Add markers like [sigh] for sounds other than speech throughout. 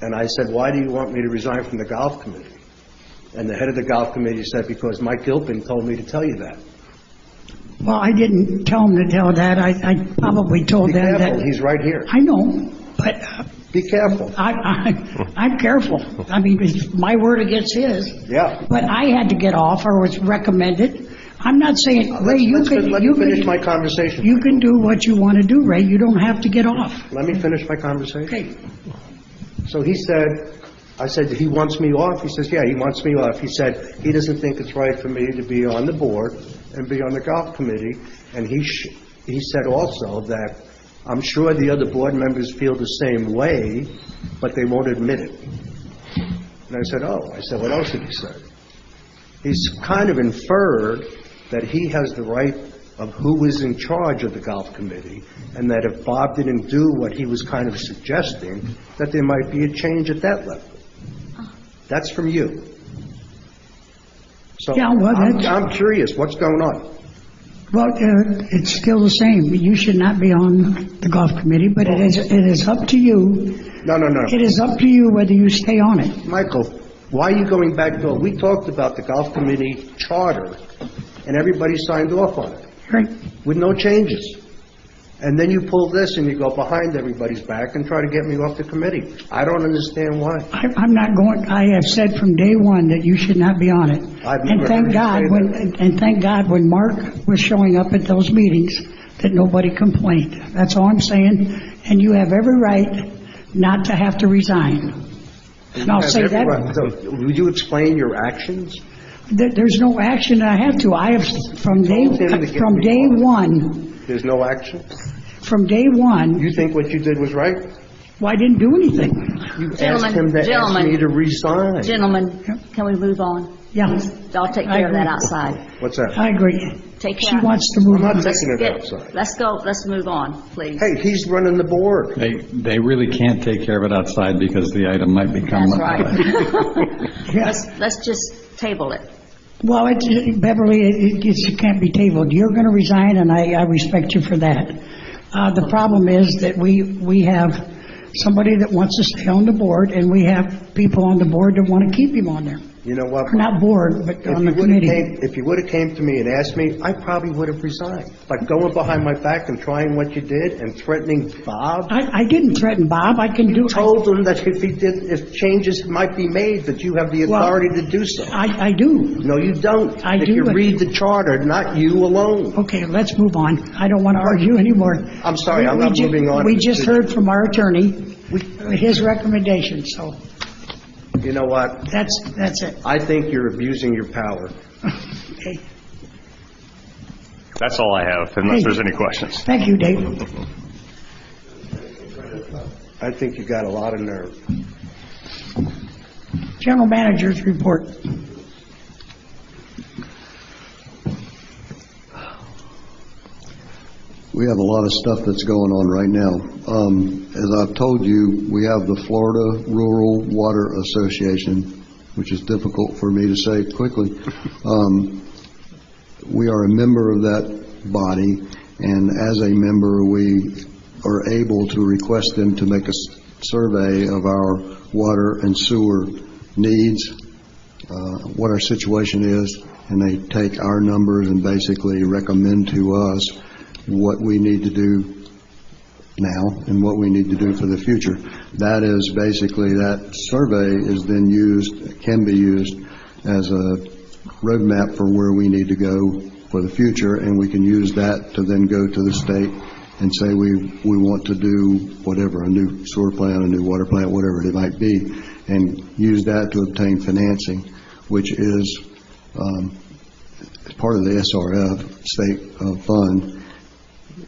And I said, "Why do you want me to resign from the golf committee?" And the head of the golf committee said, "Because Mike Gilpin told me to tell you that." Well, I didn't tell him to tell that. I, I probably told Be them that. careful, he's right here. I know, but uh, Be careful. I, I, I'm careful. I mean, it's my word against his. Yeah. But I had to get off or was recommended. I'm not saying, Ray, Let's- you let's- can, Let you me finish my can, conversation. you can do what you want to do, Ray. You don't have to get off. Let me finish my conversation. Okay. So he said, I said, "He wants me off?" He says, "Yeah, he wants me off." He said, "He doesn't think it's right for me to be on the board and be on the golf committee." And he, sh- he said also that, "I'm sure the other board members feel the same way, but they won't admit it." And I said, "Oh." I said, "What else did he say?" He's kind of inferred that he has the right of who is in charge of the golf committee, and that if Bob didn't do what he was kind of suggesting, that there might be a change at that level. That's from you. So Yeah, well, I'm that's- I'm curious, what's going on? Well, uh, it's still the same. You should not be on the golf committee, but it is, it is up to you. No, no, no. It is up to you whether you stay on it. Michael, why are you going back door? We talked about the golf committee charter, and everybody signed off on it. Right? with no changes. And then you pull this and you go behind everybody's back and try to get me off the committee. I don't understand why. I- I'm not going, I have said from day one that you should not be on it. I've And never heard thank you God, say when And thank God, when Mark was showing up at those meetings, that nobody complained. That's all I'm saying, and you have every right not to have to resign. And I'll say Everyone- that, so, Would you explain your actions? there- there's no action I have to. I have, from day, Told him to get from me day off. one, There's no action? from day one, You think what you did was right? well, I didn't do anything. You asked Gentlemen, him to ask gentlemen. me to resign. Gentlemen, can we move on? Yeah, I'll take care of that outside. What's that? I agree. Take She care. wants to move I'm not on. taking it Get- outside. Let's go, let's move on, please. Hey, he's running the board. They, they really can't take care of it outside because the item might become. That's right. [laughs] [laughs] Yes. Let's just table it. Well, it- it- Beverly, it- it it can't be tabled. You're going to resign, and I I respect you for that. Uh, The problem is that we we have somebody that wants to stay on the board, and we have people on the board that want to keep him on there. You know what? Or Not board, but If on you the would've committee. came- If you would've came to me and asked me, I probably would've resigned. But going behind my back and trying what you did and threatening Bob? I I didn't threaten Bob. I can do, told him that if he did, if changes might be made, that you have the Well- authority to do so. I I do. No, you don't. I If do, you but- read the charter, not you alone. Okay, let's move on. I don't want to argue anymore. I'm sorry, I'm We- we not ju- moving on. We just heard from our attorney, We- his recommendation, so You know what? that's that's it. I think you're abusing your power. Okay. That's all I have, unless there's any questions. Thank you, Dave. I think you got a lot of nerve. General Manager's report. We have a lot of stuff that's going on right now. Um, As I've told you, we have the Florida Rural Water Association, which is difficult for me to say quickly. Um, We are a member of that body, and as a member, we are able to request them to make a s- survey of our water and sewer needs, uh, what our situation is, and they take our numbers and basically recommend to us what we need to do now and what we need to do for the future. That is basically, that survey is then used, can be used as a roadmap for where we need to go for the future, and we can use that to then go to the state and say, we, we want to do whatever, a new sewer plant, a new water plant, whatever it might be, and use that to obtain financing, which is um, part of the SRF state uh, fund,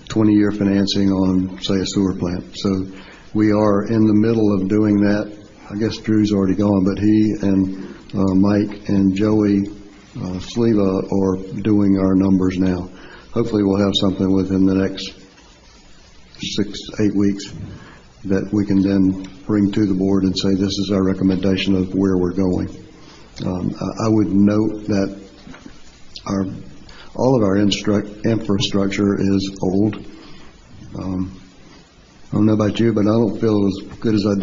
20-year financing on, say, a sewer plant. So we are in the middle of doing that. I guess Drew's already gone, but he and uh, Mike and Joey uh, Sleva are doing our numbers now. Hopefully, we'll have something within the next six, eight weeks that we can then bring to the board and say, this is our recommendation of where we're going. Um, I I would note that our, all of our instruct, infrastructure is old. Um, I don't know about you, but I don't feel as good as I did